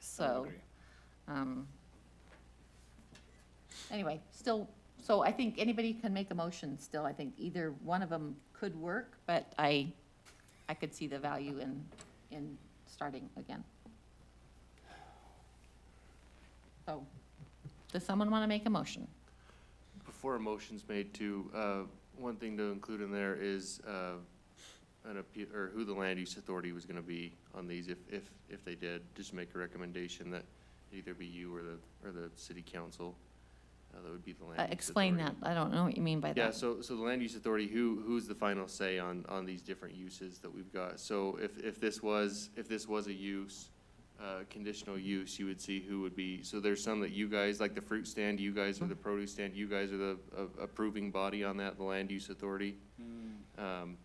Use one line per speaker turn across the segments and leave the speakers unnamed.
so.
agree.
um, Anyway, still, so I think anybody can make a motion still. I think either one of them could work, but I, I could see the value in, in starting again. So, does someone want to make a motion?
Before a motion's made to, uh, one thing to include in there is, uh, an appeal, or who the land use authority was gonna be on these, if, if, if they did, just make a recommendation that it either be you or the, or the city council, uh, that would be the land
Uh,
use
Explain that.
authority.
I don't know what you mean by that.
Yeah, so, so the land use authority, who, who's the final say on, on these different uses that we've got? So if, if this was, if this was a use, uh, conditional use, you would see who would be, so there's some that you guys, like the fruit stand, you guys
Hmm.
are the produce stand, you guys are the uh, approving body on that, the land use authority.
Hmm.
Um,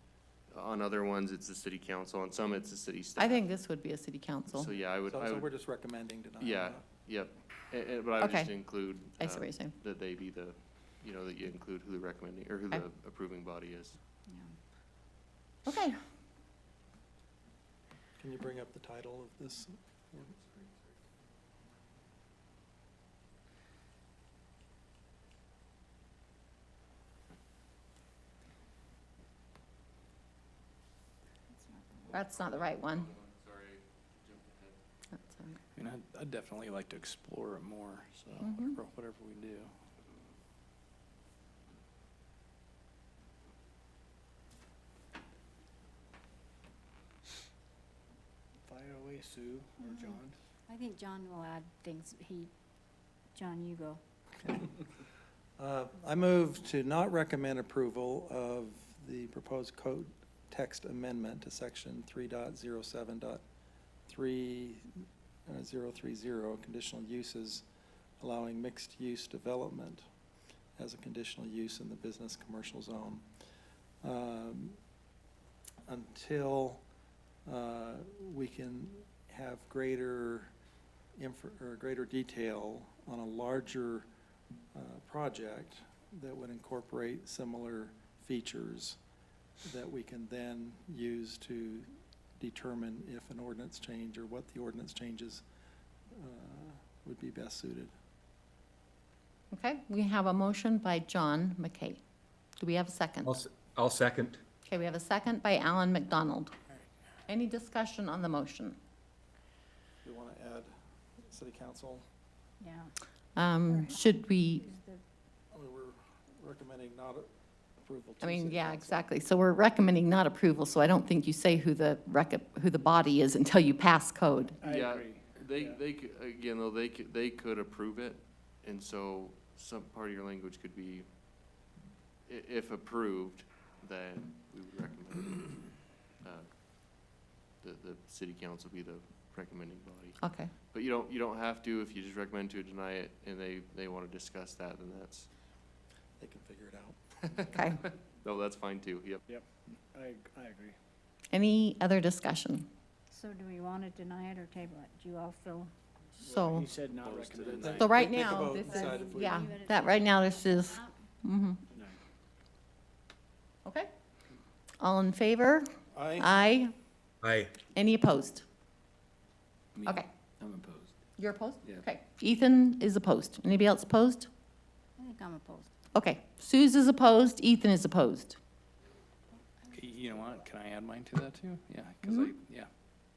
on other ones, it's the city council, on some, it's the city staff.
I think this would be a city council.
So, uh, yeah, I would,
So,
I
so we're
would,
just recommending denial.
yeah,
huh?
yep, and, and, but I would
Okay.
just include.
I see
um,
what you're saying.
that they be the, you know, that you include who the recommending, or who
Okay.
the approving body is.
Okay,
Can you bring up the title of this?
that's not the right one.
Sorry, jumped ahead.
That's um, all right.
And I'd, I'd definitely like to explore it more, so
Mhm.
whatever, whatever we do. Fire away, Sue
or John. I think John will add things. He, John, you go.
Uh, I move to not recommend approval of the proposed code text amendment to section three dot zero seven dot three, uh, zero three zero, conditional uses allowing mixed-use development as a conditional use in the business commercial zone. Um, Until, uh, we can have greater infor, or greater detail on a larger, uh, project that would incorporate similar features that we can then use to determine if an ordinance change or what the ordinance changes uh, would be best suited.
Okay, we have a motion by John McKay. Do we have a second?
I'll, s- I'll second.
Okay, we have a second by Alan McDonald. Any discussion on the motion?
We want to add city council,
Yeah.
Um, Should we,
we were recommending not approval
I mean, yeah, exactly. So we're recommending not approval, so I don't think you say who the, rec- who the body is until you pass code.
I agree. They, they, c- again, though, they could, they could approve it, and so some part of your language could be, i- if approved, then we would recommend, uh, the, the city council be the recommending body.
Okay,
But you don't, you don't have to, if you just recommend to deny it, and they, they wanna discuss that, then that's,
They can figure it out.
okay.
no, that's fine too, yep.
I, I agree.
Any other discussion?
So do we want to deny it or table it? Do you all feel?
So,
said not
Opposed to the
recommended.
night.
so right
Take a
now,
vote
this
and
is,
decide if we-
yeah, that, right now, this is, mhm.
No.
Okay. All in favor?
I,
Aye.
Aye.
Any opposed?
Me.
Okay.
I'm opposed.
You're opposed?
Yeah.
Okay. Ethan is opposed. Anybody else opposed?
I think I'm opposed.
Okay. Suze is opposed, Ethan is opposed.
You know what, can I add mine to that too? Yeah, cause I, yeah,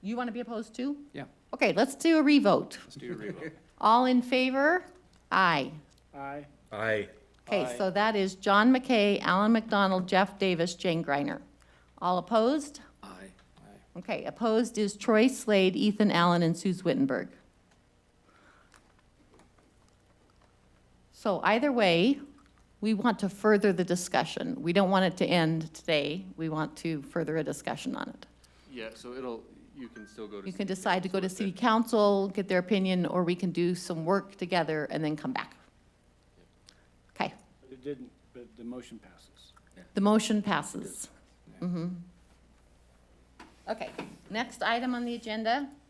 You want to be opposed too?
Yeah.
Okay, let's do a revote.
let's do a revote.
All in favor? Aye.
Aye.
Aye.
Okay, so that is John McKay, Alan McDonald, Jeff Davis, Jane Greiner. All opposed?
Aye.
Okay, opposed is Troy Slade, Ethan Allen, and Suze Wittenberg. So either way, we want to further the discussion. We don't want it to end today. We want to further a discussion on it.
Yeah, so it'll, you can still go to.
You can
city
decide to go
council
to
if
city
that-
council, get their opinion, or we can do some work together and then come back. Okay,
But It didn't, but the motion passes.
the motion Mm-hmm. passes. Mhm. Okay, next item on the agenda
Uh,